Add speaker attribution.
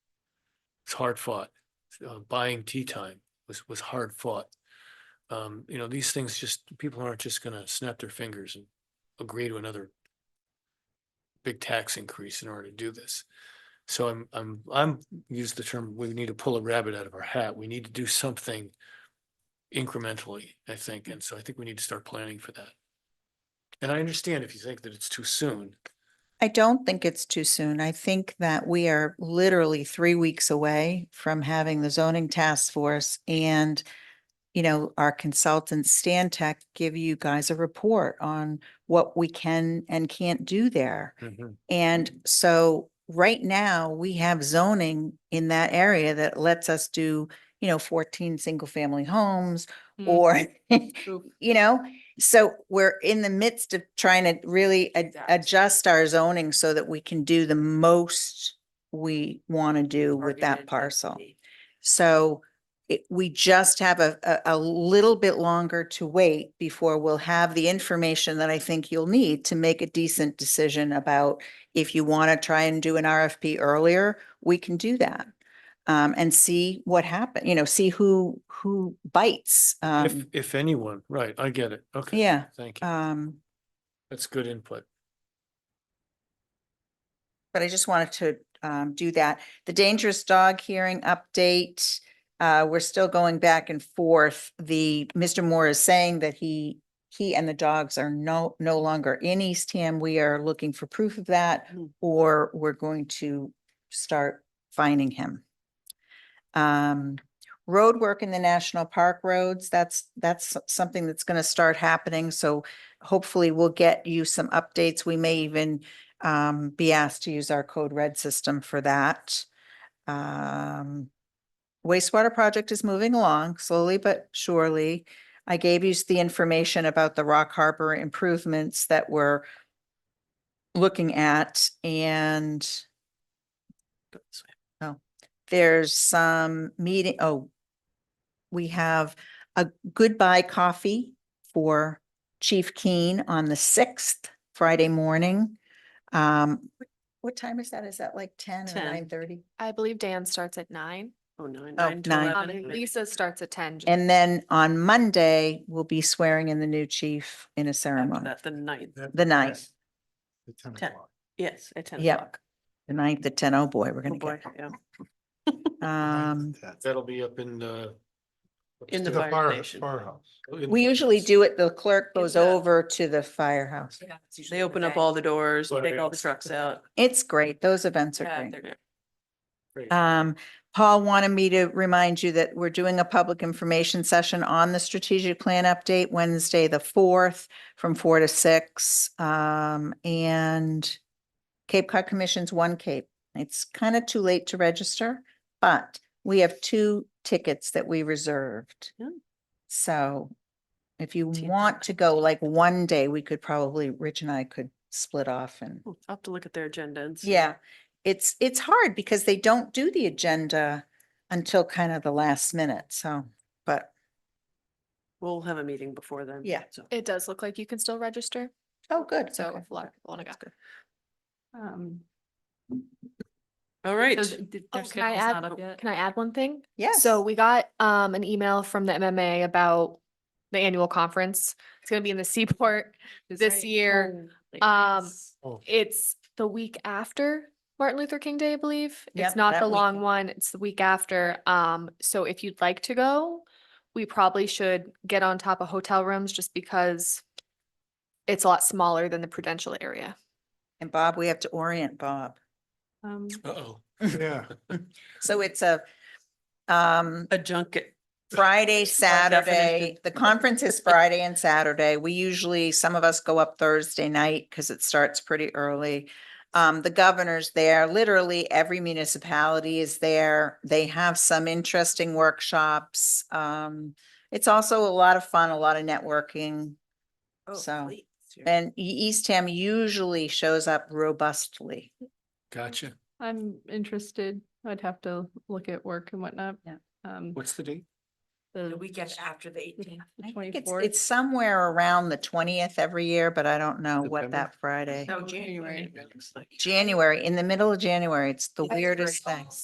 Speaker 1: it's hard fought. Uh, Buying tea time was, was hard fought. Um, you know, these things just, people aren't just gonna snap their fingers and agree to another big tax increase in order to do this. So I'm, I'm, I'm, use the term, we need to pull a rabbit out of our hat. We need to do something incrementally, I think. And so I think we need to start planning for that. And I understand if you think that it's too soon.
Speaker 2: I don't think it's too soon. I think that we are literally three weeks away from having the zoning task force and, you know, our consultant Stan Tech give you guys a report on what we can and can't do there. And so right now, we have zoning in that area that lets us do, you know, fourteen single-family homes
Speaker 3: Mm,
Speaker 4: Mm-hmm.
Speaker 2: or,
Speaker 3: true.
Speaker 2: you know? So we're in the midst of trying to really ad-
Speaker 3: Exact.
Speaker 2: adjust our zoning so that we can do the most we want to do with
Speaker 3: Targeted
Speaker 2: that parcel.
Speaker 3: density.
Speaker 2: So it, we just have a, a, a little bit longer to wait before we'll have the information that I think you'll need to make a decent decision about if you want to try and do an RFP earlier, we can do that. Um, and see what happen, you know, see who, who bites.
Speaker 1: If,
Speaker 2: Um,
Speaker 1: if anyone, right, I get it. Okay.
Speaker 2: yeah,
Speaker 1: Thank you.
Speaker 2: um,
Speaker 1: That's good input.
Speaker 2: but I just wanted to um do that. The dangerous dog hearing update. Uh, we're still going back and forth. The, Mr. Moore is saying that he, he and the dogs are no, no longer in Eastham. We are looking for proof of that.
Speaker 3: Hmm.
Speaker 2: Or we're going to start finding him. Um, road work in the national park roads, that's, that's s- something that's gonna start happening. So hopefully we'll get you some updates. We may even um, be asked to use our code red system for that. Um, wastewater project is moving along slowly but surely. I gave you the information about the Rock Harbor improvements that we're looking at and oh, there's some meeting, oh, we have a goodbye coffee for Chief Keen on the sixth, Friday morning. Um, wh- what time is that? Is that like ten or
Speaker 4: 10.
Speaker 2: nine thirty?
Speaker 5: I believe Dan starts at nine.
Speaker 4: Oh, nine,
Speaker 2: Oh,
Speaker 4: nine to
Speaker 2: nine.
Speaker 5: Um,
Speaker 4: eleven.
Speaker 5: Lisa starts at ten. just-
Speaker 2: And then on Monday, we'll be swearing in the new chief in a ceremony,
Speaker 4: That, the ninth,
Speaker 2: the ninth,
Speaker 4: Ten. yes, at ten
Speaker 2: Yep.
Speaker 4: o'clock.
Speaker 2: the ninth at ten. Oh, boy, we're
Speaker 4: Oh,
Speaker 2: gonna
Speaker 4: boy,
Speaker 2: get,
Speaker 4: yeah.
Speaker 2: um,
Speaker 1: That'll be up in the.
Speaker 4: In the
Speaker 6: The
Speaker 4: fire
Speaker 6: fire,
Speaker 4: station.
Speaker 6: firehouse.
Speaker 2: we usually do it, the clerk
Speaker 3: In
Speaker 2: goes
Speaker 3: the-
Speaker 2: over to the firehouse.
Speaker 3: Yeah, it's usually
Speaker 4: They
Speaker 3: in
Speaker 4: open up
Speaker 3: day.
Speaker 4: all the doors,
Speaker 1: Right,
Speaker 4: take all the
Speaker 1: yeah.
Speaker 4: trucks out.
Speaker 2: It's great. Those events are
Speaker 4: Yeah,
Speaker 2: great.
Speaker 4: they're-
Speaker 2: Um, Paul wanted me to remind you that we're doing a public information session on the strategic plan update Wednesday, the fourth, from four to six. Um, and Cape Cod Commission's One Cape. It's kind of too late to register, but we have two tickets that we reserved.
Speaker 4: Yeah.
Speaker 2: So if you
Speaker 4: Two.
Speaker 2: want to go like one day, we could probably, Rich and I could split off and
Speaker 4: hmm, I'll have to look at their agenda and see.
Speaker 2: yeah, it's, it's hard because they don't do the agenda until kind of the last minute, so, but,
Speaker 4: We'll have a meeting before then.
Speaker 2: Yeah.
Speaker 4: so.
Speaker 5: It does look like you can still register,
Speaker 2: oh, good.
Speaker 5: so
Speaker 2: okay.
Speaker 5: if a lot of people want to go.
Speaker 3: Um,
Speaker 4: All right.
Speaker 3: so th- th-
Speaker 5: Oh,
Speaker 3: their
Speaker 5: can I
Speaker 3: schedule's not
Speaker 5: add,
Speaker 3: up yet?
Speaker 5: can I add one thing?
Speaker 2: Yes.
Speaker 5: So we got um an email from the MMA about the annual conference. It's gonna be in the Seaport. this
Speaker 3: right.
Speaker 5: year,
Speaker 3: Oh, like,
Speaker 5: um,
Speaker 3: yes.
Speaker 1: Oh.
Speaker 5: It's the week after Martin Luther King Day, I believe.
Speaker 2: Yep,
Speaker 5: It's not
Speaker 2: that
Speaker 5: the long
Speaker 2: weekend.
Speaker 5: one, it's the week after. Um, so if you'd like to go, we probably should get on top of hotel rooms just because it's a lot smaller than the Prudential area.
Speaker 2: And Bob, we have to orient Bob.
Speaker 4: Um,
Speaker 1: Uh-oh.
Speaker 6: Yeah.
Speaker 2: So it's a, um,
Speaker 4: A junket.
Speaker 2: Friday,
Speaker 4: definition.
Speaker 2: Saturday, the conference is Friday and Saturday. We usually, some of us go up Thursday night because it starts pretty early. Um, the governor's there, literally every municipality is there. They have some interesting workshops. Um, it's also a lot of fun, a lot of networking.
Speaker 3: Oh,
Speaker 2: so,
Speaker 3: wait, it's your-
Speaker 2: And E- Eastham usually shows up robustly.
Speaker 1: Gotcha.
Speaker 7: I'm interested. I'd have to look at work and whatnot.
Speaker 2: Yeah.
Speaker 7: Um,
Speaker 1: What's the date?
Speaker 5: Um,
Speaker 3: The weekend after the eighteenth.
Speaker 7: the
Speaker 2: I think it's,
Speaker 7: twenty-fourth.
Speaker 2: it's somewhere around the twentieth every year, but I don't know what
Speaker 1: September?
Speaker 2: that Friday.
Speaker 3: No,
Speaker 7: January.
Speaker 3: January.
Speaker 4: Oh, It looks like.
Speaker 2: January, in the middle of January, it's the
Speaker 3: That's
Speaker 2: weirdest
Speaker 3: great.
Speaker 2: thing.